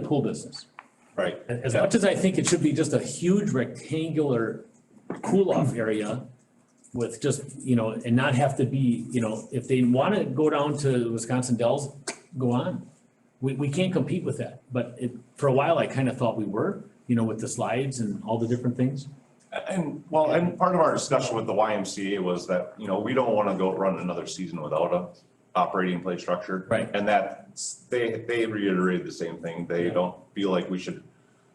pool business. Right. And As much as I think it should be just a huge rectangular cool off area with just, you know, and not have to be, you know, if they wanna go down to Wisconsin Dells, go on. We, we can't compete with that, but it, for a while, I kinda thought we were, you know, with the slides and all the different things. And, well, and part of our discussion with the YMCA was that, you know, we don't want to go run another season without a operating play structure. Right. And that, they, they reiterated the same thing. They Yeah. don't feel like we should,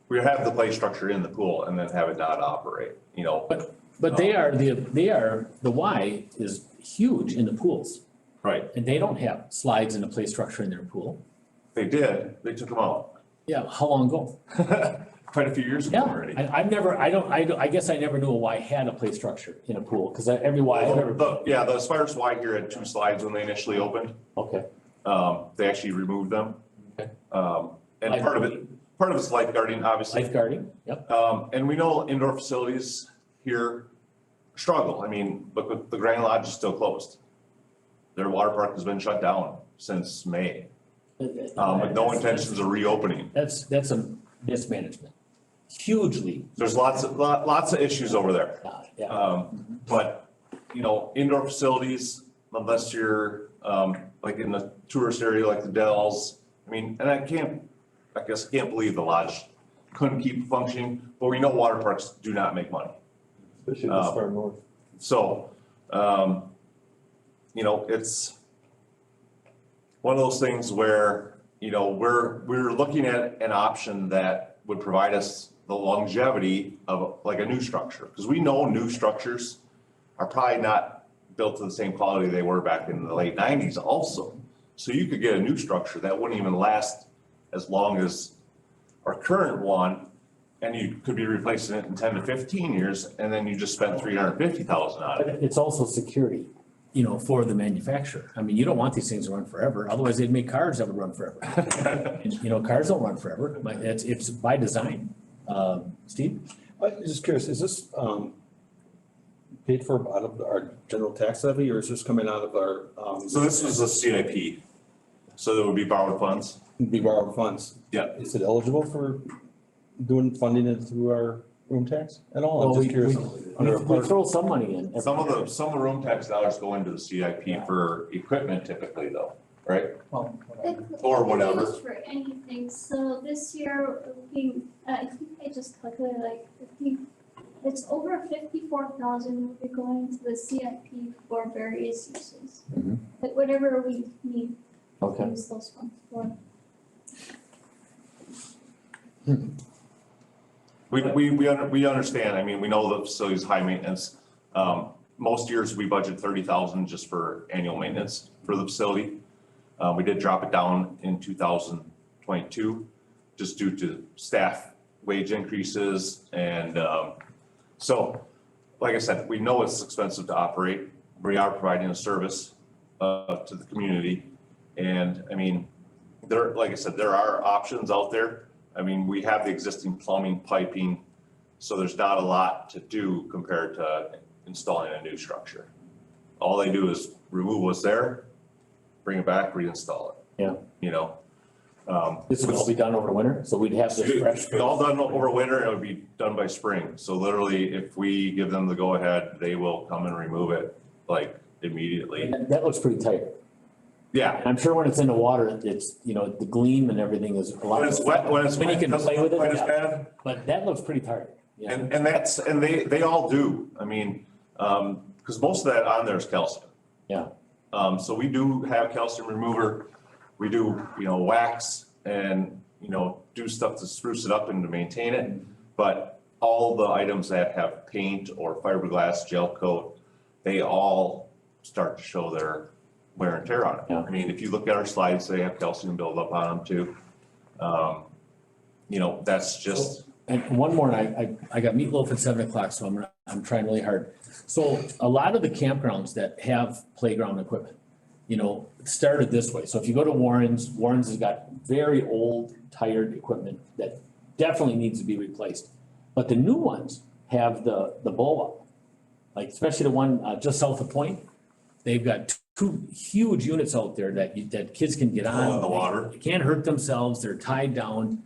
we have the play structure in the pool and then have it not operate, you know? But, but they are, the, they are, the Y is huge in the pools, Right, and they don't have slides and a play structure in their pool. they did. They took them out Yeah, how long ago? quite a few years ago Yeah, already. I, I've never, I don't, I, don't- I guess I never knew a Y had a play structure in a pool, cause I, every Y Oh, I've ever, The- Yeah, the Aspires Y here had two slides when they initially opened. okay, Um, they actually removed them. Okay. Um, and part of it, part of it's lifeguarding, obviously. lifeguarding, yep, Um, and we know indoor facilities here struggle. I mean, look, the- the Grand Lodge is still closed. Their water park has been shut down since May, um, with no intentions of reopening. that's, that's a mismanagement, hugely, There's lots of, lot- lots of issues over there. uh, yeah, Um, but, you know, indoor facilities, unless you're, um, like in the tourist area like the Dells, I mean, and I can't, I guess, I can't believe the Lodge couldn't keep functioning, but we know water parks do not make money. Especially Uh, this far north. So, um, you know, it's one of those things where, you know, we're, we're looking at an option that would provide us the longevity of like a new structure, because we know new structures are probably not built to the same quality they were back in the late nineties also. So you could get a new structure that wouldn't even last as long as our current one, and you could be replacing it in ten to fifteen years, and then you just spent three hundred fifty thousand on it. but it's also security, you know, for the manufacturer, I mean, you don't want these things to run forever, otherwise they'd make cars that would run forever. And, You know, cars don't run forever, but it's, it's by design, um, Steve? I'm just curious, is this um paid for out of our general tax levy or is this coming out of our um? So this was a CIP, so there would be borrowed funds. Be borrowed funds. Yeah. Is it eligible for doing funding it through our room tax at all? Well, Oh, I'm we- just curious. we- Under a We part- throw some money in. every Some of year. the, some of the room tax dollars go into the CIP for equipment typically though, right? Or whatever. Used For anything, so this year, we, uh, I think I just calculated, like, I think it's over fifty-four thousand will be going to the CIP for various uses. Mm-hmm. Mhm. Like, whatever we need, Okay. use those funds for. We, we, we, under- we understand, I mean, we know the facility's high maintenance. Um, most years we budget thirty thousand just for annual maintenance for the facility. Uh, we did drop it down in two thousand twenty-two, just due to staff wage increases and, um, so, like I said, we know it's expensive to operate. We are providing a service, uh, to the community. And, I mean, there, like I said, there are options out there. I mean, we have the existing plumbing, piping, so there's not a lot to do compared to installing a new structure. All they do is remove what's there, bring it back, reinstall it. Yeah. You know? Um, This would all be done over winter, so we'd have this fresh. It'd be all done over winter, and it would be done by spring. So literally, if we give them the go-ahead, they will come and remove it, like, immediately. That that looks pretty tight. Yeah, And I'm sure when it's in the water, it's, you know, the gleam and everything is a lot. when it's wet, when it's When wet, you it can doesn't play with look it, quite as yeah. bad. But that looks pretty tight. Yeah. And, and that's, and they, they all do, I mean, um, cause most of that on there is calcium. Yeah. Um, so we do have calcium remover, we do, you know, wax and, you know, do stuff to spruce it up and to maintain it. But all the items that have paint or fiberglass gel coat, they all start to show their wear and tear on it. Yeah. I mean, if you look at our slides, they have calcium buildup on them too. Um, you know, that's just, And one more, and I, I, I got meatloaf at seven o'clock, so I'm, gonna- I'm trying really hard. So a lot of the campgrounds that have playground equipment, you know, started this way. So if you go to Warren's, Warren's has got very old, tired equipment that definitely needs to be replaced. But the new ones have the, the bowl up. Like especially the one, uh, just south of Point, they've got two huge units out there that, you- that kids can get on. All in the water. They Can't hurt themselves, they're tied down.